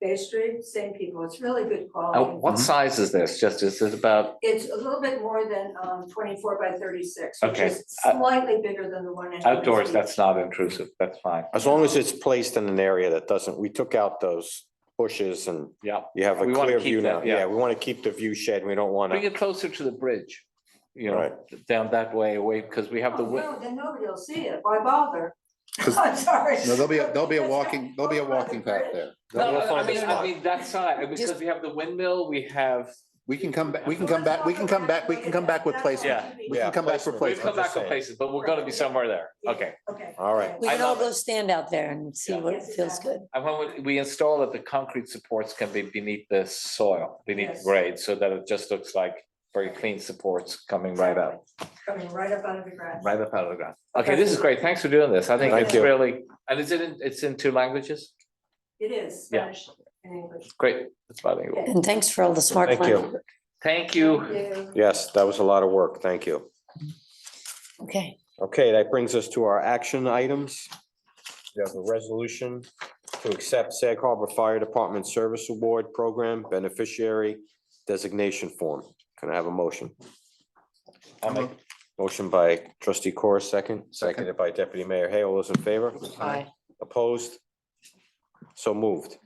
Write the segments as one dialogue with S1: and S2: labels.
S1: Bay Street, same people, it's really good
S2: Uh,
S1: quality.
S3: Mm-hmm.
S2: what size is this? Just, is it about,
S1: It's a little bit more than um twenty-four by thirty-six, which
S2: Okay,
S1: is
S2: uh,
S1: slightly bigger than the one in. Huntington
S2: outdoors,
S1: Beach.
S2: that's not intrusive, that's fine.
S3: As long as it's placed in an area that doesn't, we took out those bushes and
S2: Yeah,
S3: you have a
S2: We wanna
S3: clear
S2: keep
S3: view now.
S2: that, yeah.
S3: Yeah, we want to keep the view shed. We don't want
S2: bring
S3: to,
S2: it closer to the bridge, you know,
S3: Right.
S2: down that way away, because we have the,
S1: Oh,
S2: wi-
S1: no, then nobody will see it, why bother?
S4: 'Cause-
S1: I'm sorry.
S4: No, there'll be, a there'll be a
S1: It's not-
S4: walking, there'll be a walking path there.
S2: no,
S3: We'll
S2: I
S3: find a
S2: mean, I
S3: spot.
S2: mean, that side, because we have the windmill, we have,
S4: We can come back, we can come back, we can come back, we can come back with placement.
S2: Yeah.
S4: We can come back for
S3: Yeah.
S2: we've come
S4: placement.
S2: back on places, but we're gonna be somewhere there. Okay.
S1: Okay.
S3: All right.
S5: We
S2: I
S5: can all
S2: love
S5: go stand out there and see
S2: Yeah.
S5: what
S1: Yes,
S5: feels
S1: exactly.
S5: good.
S2: And when we- we install it, the concrete supports can be beneath the soil, beneath
S1: Yes.
S2: grade, so that it just looks like very clean supports coming right up,
S1: Coming right up out of the grass.
S2: right up out of the ground. Okay, this is great. Thanks for doing this. I think
S3: Thank
S2: it's
S3: you.
S2: really, and is it, in- it's in two languages?
S1: It is
S2: Yeah.
S1: Spanish and English.
S2: Great, it's bilingual.
S5: And thanks for all the smart.
S3: Thank
S5: planning.
S3: you.
S2: Thank you.
S1: Yeah.
S3: yes, that was a lot of work. Thank you.
S5: Okay,
S3: Okay, that brings us to our action items. We have a resolution to accept Sag Harbor Fire Department Service Award Program Beneficiary Designation Form. Can I have a motion?
S2: I'll make-
S3: Motion by trustee Corr, second,
S4: Second.
S3: seconded by deputy mayor Hay. All those in favor?
S5: bye.
S3: Opposed? So moved.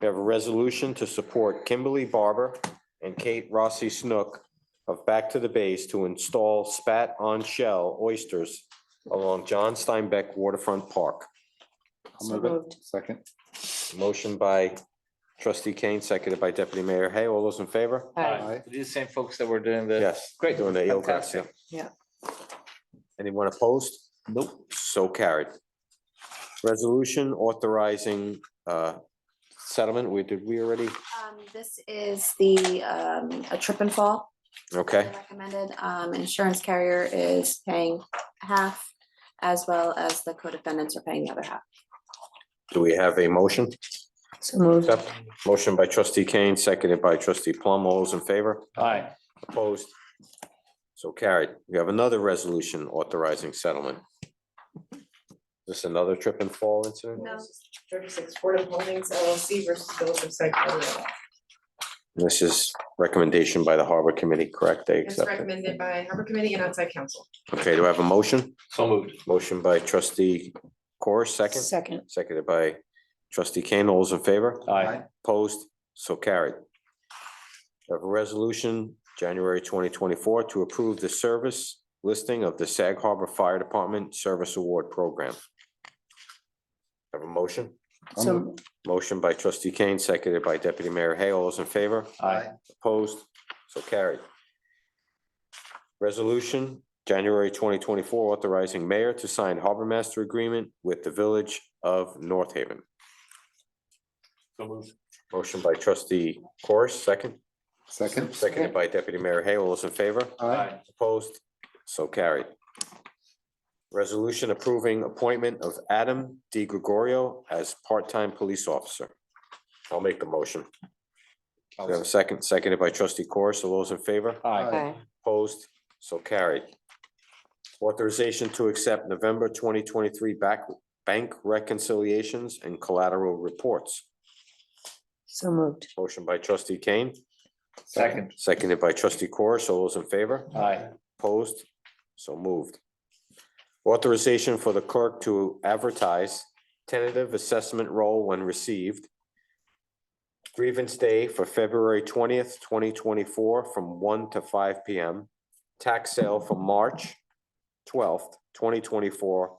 S3: We have a resolution to support Kimberly Barber and Kate Rossi Snook of Back to the Base to install spat on shell oysters along John Steinbeck Waterfront Park.
S4: I'll
S5: So
S4: move it.
S5: moved.
S4: Second,
S3: Motion by trustee Kane, seconded by deputy mayor Hay. All those in favor?
S5: Bye.
S4: Aye.
S2: These same folks that were doing the.
S3: Yes.
S2: Great.
S3: Doing the eelgrass, yeah.
S2: Fantastic.
S5: Yeah.
S3: Anyone opposed? Nope. So carried. Resolution authorizing uh settlement. We, did we already?
S6: Um, this is the, um, a trip and fall.
S3: Okay,
S6: Recommended, um, insurance carrier is paying half as well as the co-defendants are paying the other half.
S3: do we have a motion?
S5: So moved.
S3: Motion by trustee Kane, seconded by trustee Plum. All those in favor?
S2: Aye.
S3: Opposed? So carried. We have another resolution authorizing settlement. This another trip and fall incident?
S7: No, thirty-six Board of Holdings LLC versus Village of Sag Harbor.
S3: This is recommendation by the Harbor Committee, correct? They
S7: It's
S3: accept it.
S7: recommended by Harbor Committee and outside council.
S3: Okay, do I have a motion?
S2: So moved.
S3: Motion by trustee Corr, second,
S5: Second,
S3: seconded by trustee Kane. All those in favor?
S2: Aye.
S3: Opposed? So carried. We Have a resolution, January twenty twenty-four, to approve the service listing of the Sag Harbor Fire Department Service Award Program. Have a motion?
S4: I'll
S5: so
S4: move
S5: moved.
S3: Motion by trustee Kane, seconded by deputy mayor Hay. All those in favor?
S2: Aye.
S3: Opposed? So carried. Resolution, January twenty twenty-four, authorizing mayor to sign harbor master agreement with the village of North Haven.
S2: So moved.
S3: Motion by trustee Corus, second,
S4: second.
S3: seconded by deputy mayor Hay. All those in favor?
S4: Aye.
S3: Opposed? So carried. Resolution approving appointment of Adam D. Gregorio as part-time police officer. I'll make the motion. We have a second, seconded by trustee Corus. All those in favor?
S2: Aye.
S5: Bye.
S3: Opposed? So carried. Authorization to accept November twenty twenty-three back, bank reconciliations and collateral reports.
S5: So moved.
S3: Motion by trustee Kane,
S2: Second.
S3: seconded by trustee Corus. All those in favor?
S2: Aye.
S3: Opposed? So moved. Authorization for the clerk to advertise tentative assessment roll when received. Grievance day for February twentieth, twenty twenty-four, from one to five P M. Tax sale for March twelfth, twenty twenty-four,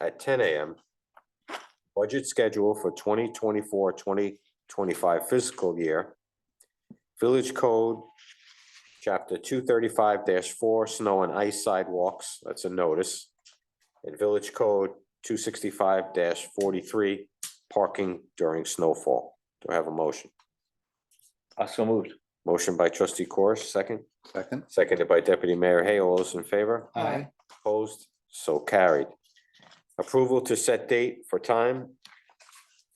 S3: at ten A M. Budget schedule for 2024-2025 fiscal year. Village Code chapter two thirty-five four, snow and ice sidewalks, that's a notice. And Village Code two sixty-five forty-three, parking during snowfall. Do I have a motion?
S2: Uh, So moved.
S3: Motion by trustee Corish, second,
S4: Second.
S3: seconded by deputy mayor Hay. All those in favor?
S4: Aye.
S3: Opposed, so carried. Approval to set date for time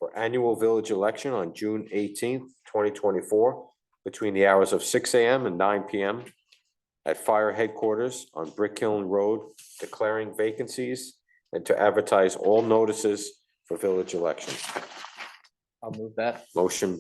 S3: for annual village election on June eighteenth, twenty twenty-four, between the hours of six AM and nine PM at fire headquarters on Brick Hill Road, declaring vacancies and to advertise all notices for village elections.
S2: I'll move that.
S3: Motion